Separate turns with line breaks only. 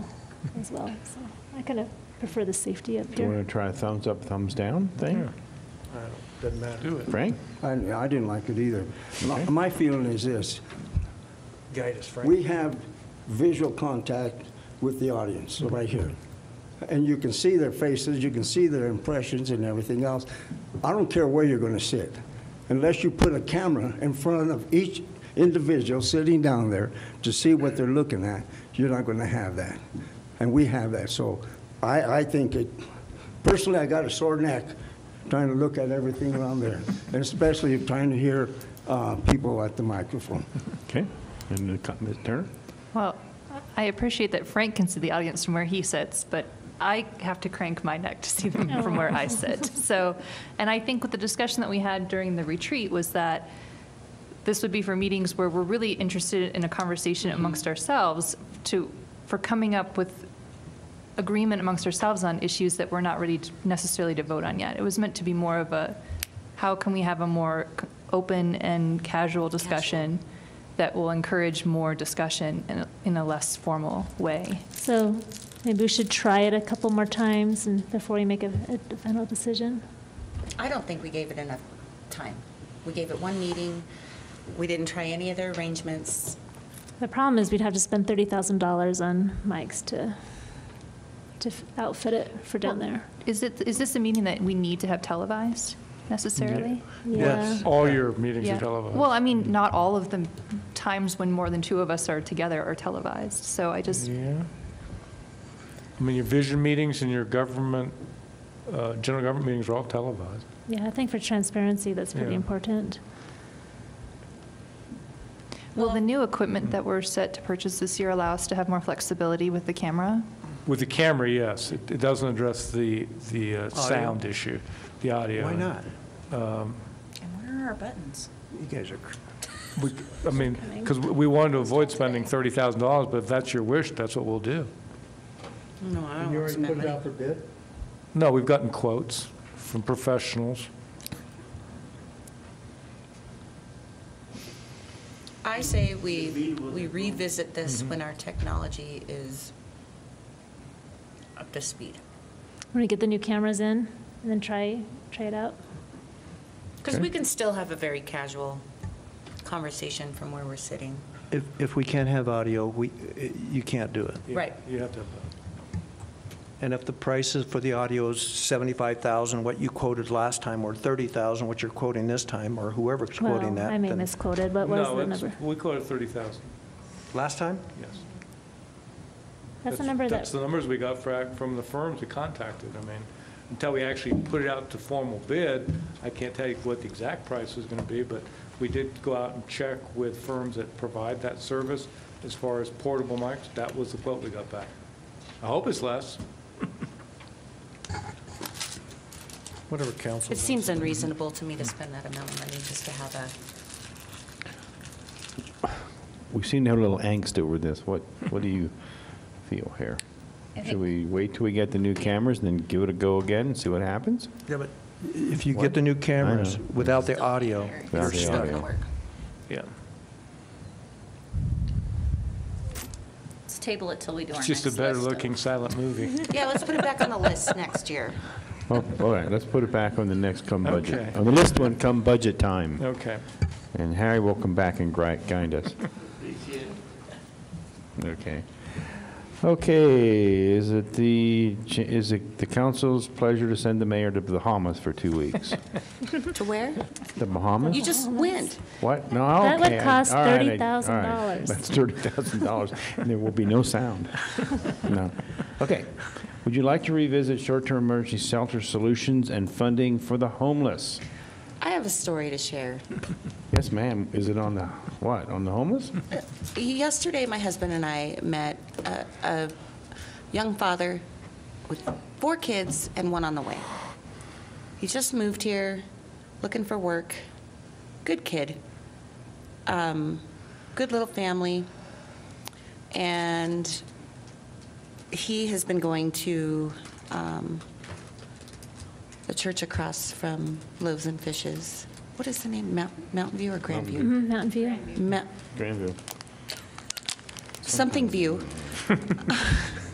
as well. So I kind of prefer the safety up
Do you
here.
want to try a thumbs up, thumbs down thing?
Doesn't matter. Do it.
Frank?
I, I didn't like it either. My, my feeling is this,
Guide us, Frank.
we have visual contact with the audience right here. And you can see their faces, you can see their impressions and everything else. I don't care where you're gonna sit, unless you put a camera in front of each individual sitting down there to see what they're looking at, you're not gonna have that. And we have that, so I, I think it, personally, I got a sore neck trying to look at everything around there, and especially trying to hear, uh, people at the microphone.
Okay. And uh, co- Ms. Turner?
Well, I appreciate that Frank can see the audience from where he sits, but I have to crank my neck to see them from where I sit. So, and I think with the discussion that we had during the retreat was that this would be for meetings where we're really interested in a conversation amongst ourselves to, for coming up with agreement amongst ourselves on issues that we're not ready to- necessarily to vote on yet. It was meant to be more of a, how can we have a more c- open and casual discussion that will encourage more discussion in a, in a less formal way?
So maybe we should try it a couple more times and before we make a, a final decision.
I don't think we gave it enough time. We gave it one meeting. We didn't try any other arrangements.
The problem is we'd have to spend thirty thousand dollars on mics to to f- outfit it for down there.
Is it, is this a meeting that we need to have televised necessarily?
Yeah.
All your meetings
Yeah.
are televised.
Well, I mean, not all of the times when more than two of us are together are televised, so I just,
Yeah. I mean, your vision meetings and your government, uh, general government meetings are all televised.
Yeah, I think for transparency, that's pretty
Yeah.
important.
will the new equipment that we're set to purchase this year allow us to have more flexibility with the camera?
With the camera, yes. It it doesn't address the, the uh, sound issue, the audio.
Why not?
And where are our buttons?
You guys are, cr-
We- I mean, because we wanted to avoid spending $30,000, but if that's your wish, that's what we'll do.
No, I don't want to spend money.
for bid?
No, we've gotten quotes from professionals.
I say we, we revisit this when our technology is up to speed.
Want to get the new cameras in and then try, try it out?
Because we can still have a very casual conversation from where we're sitting.
if, if we can't have audio, we, eh, you can't do it.
Right.
You have to have that.
And if the prices for the audio is 75,000, what you quoted last time, or 30,000, what you're quoting this time, or whoever's quoting
Well,
that.
I may
then-
misquoted, but what was
No,
the
it's-
number?
We quoted 30,000,
Last time?
yes.
That's the number
That's
that,
the numbers we got fra- from the firms we contacted. I mean, until we actually put it out to formal bid, I can't tell you what the exact price is going to be, but we did go out and check with firms that provide that service as far as portable mics. That was the quote we got back. I hope it's less.
Whatever council.
It seems unreasonable to me to spend that amount of money just to have a,
We seem to have a little angst over this. What, what do you feel here? Should we wait till we get the new cameras and then give it a go again and see what happens?
Yeah, but if you get the new cameras
know.
without the audio,
Without
it's
the
just not
audio.
going to work.
Yeah.
Let's table it till we do our
It's
next
just a better
list of-
looking silent movie.
Yeah, let's put it back on the list next year.
Oh, all right, let's put it back on the next come budget.
Okay.
On the list one, come budget time.
Okay.
And Harry will come back and gri- guide us. Okay. Okay, is it the, ch- is it the council's pleasure to send the mayor to the Bahamas for two weeks?
To where?
The Bahamas?
You just went.
What? No, okay.
That would cost
all right, I- all right.
$30,000.
That's $30,000, and there will be no sound. No. Okay. Would you like to revisit short-term emergency shelter solutions and funding for the homeless?
I have a story to share.
Yes, ma'am. Is it on the, what, on the homeless?
Yesterday, my husband and I met a, a young father with four kids and one on the way. He just moved here, looking for work. Good kid. Um, good little family. And he has been going to um, the church across from Loaves and Fishes. What is the name? Mount, Mountain View or Grand View?
Mhm, Mountain View.
Mount-
Grandview.
something view.